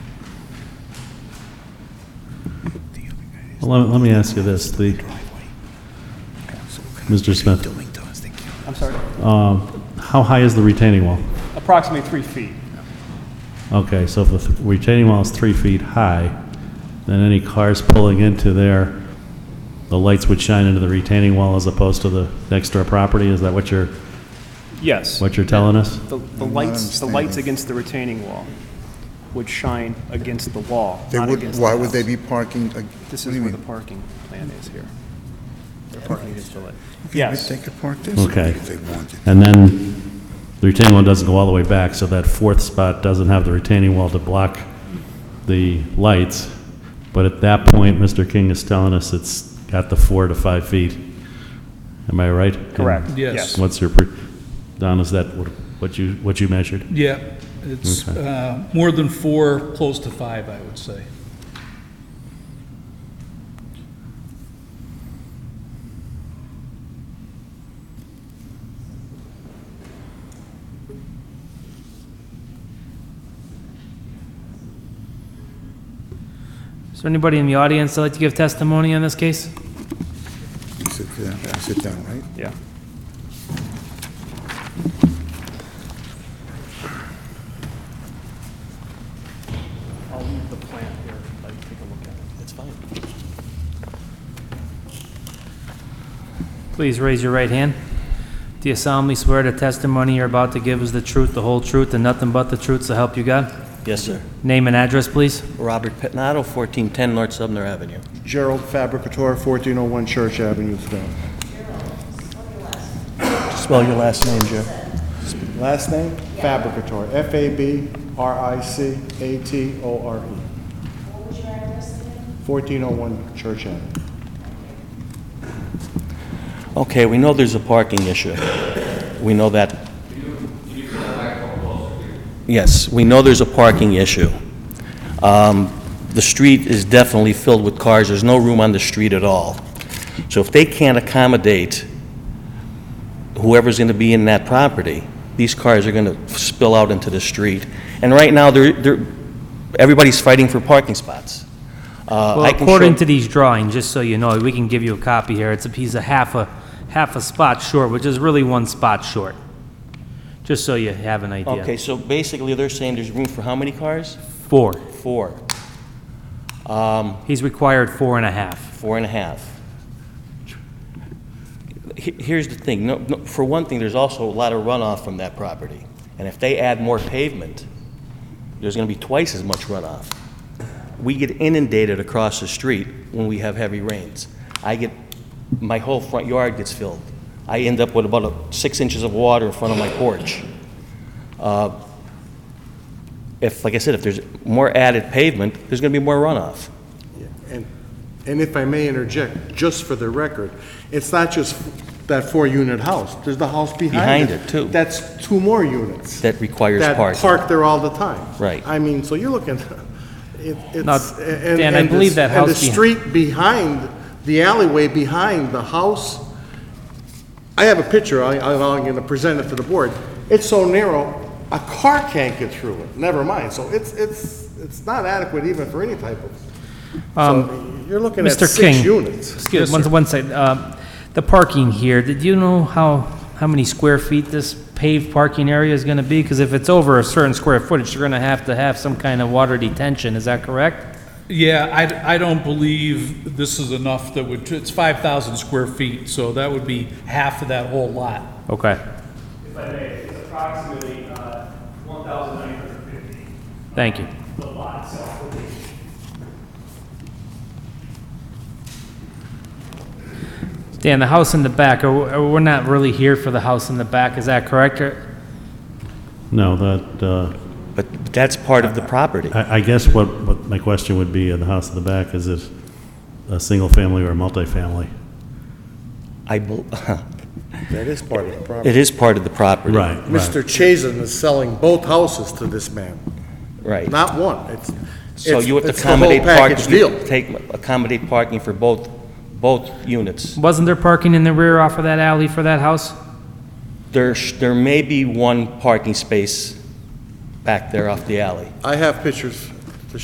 Well, Let let me ask you this, the, Mr. Smith, I'm sorry, how high is the retaining wall? approximately three feet. Okay, so if the th- retaining wall is three feet high, then any cars pulling into there, the lights would shine into the retaining wall as opposed to the next door property? Is that what you're, Yes. what you're telling us? The, the lights, the lights against the retaining wall would shine against the wall, They not would, against the why would they house. be parking? ag- This what is do you where the mean? parking plan is here. The Parking. parking against the light. They- Yes, They could park this Okay. if they wanted. And then the retaining wall doesn't go all the way back, so that fourth spot doesn't have the retaining wall to block the lights. But at that point, Mr. King is telling us it's got the four to five feet. Am I right? correct. And Yes. What's your, pre- Don, is that what- what you, what you measured? Yeah, it's Okay. uh, more than four, close to five, I would say. Is there anybody in the audience that'd like to give testimony on this case? You Sit down, you sit down, right? Yeah. I'll leave the plan here, like, take a look at it. It's fine. Please raise your right hand. Do you solemnly swear the testimony you're about to give is the truth, the whole truth, and nothing but the truth, so help you God? Yes, sir. Name and address, please. Robert Pettinato, 1410 North Sumner Avenue. Gerald Fabricator, 1401 Church Avenue, Stowe. Spell your last name, Joe. Last name? Fabricator, F-A-B-R-I-C-A-T-O-R-E. E. 1401 Church Avenue. Okay, we know there's a parking issue. We know that. Yes, we know there's a parking issue. Um, The street is definitely filled with cars. There's no room on the street at all. So if they can't accommodate whoever's going to be in that property, these cars are going to spill out into the street. And right now, they're, they're, everybody's fighting for parking spots. Uh, Well, I can according show- to these drawings, just so you know, we can give you a copy here, it's a piece of half a, half a spot short, which is really one spot short. Just so you have an idea. Okay, so basically, they're saying there's room for how many cars? Four. Four, He's required four and a half. four and a half. He- Here's the thing, no, no- for one thing, there's also a lot of runoff from that property. And if they add more pavement, there's going to be twice as much runoff. We get inundated across the street when we have heavy rains. I get, my whole front yard gets filled. I end up with about a- six inches of water in front of my porch. Uh, If, like I said, if there's more added pavement, there's going to be more runoff. And, and if I may interject, just for the record, it's not just that four-unit house, there's the house behind it. Behind it, too. That's two more units. That requires That parking. park there all the time. Right. I mean, so you're looking, it- Now, it's. and- Dan, I and the- believe that And the house behi- street behind, the alleyway behind the house, I have a picture, I, I'm going to present it to the board. It's so narrow, a car can't get through it, never mind. So it's, it's, it's not adequate even for any type of so you're looking at Mr. six King. units. Excuse, one, one second, uh, the parking here, did you know how, how many square feet this paved parking area is gonna be? Because if it's over a certain square footage, you're gonna have to have some kind of water detention, is that correct? Yeah, I, I don't believe this is enough that would, it's 5,000 square feet, so that would be half of that whole lot. Okay, if I may, it's approximately uh, 1,950, thank you. the lot itself would be. Dan, the house in the back, are, are- we're not really here for the house in the back, is that correct? Or- No, that, uh, But that's part of the property. I I guess what, what my question would be in the house in the back, is it a single-family or a multifamily? I, bel- That is part of the problem. it is part of the property. Right, right. Mr. Chazen is selling both houses to this man, Right. not one. It's, So it's- you have to it's the whole accommodate parking. package deal. Take, accommodate parking for both, both units. Wasn't there parking in the rear off of that alley for that house? There, sh- there may be one parking space back there off the alley. I have pictures,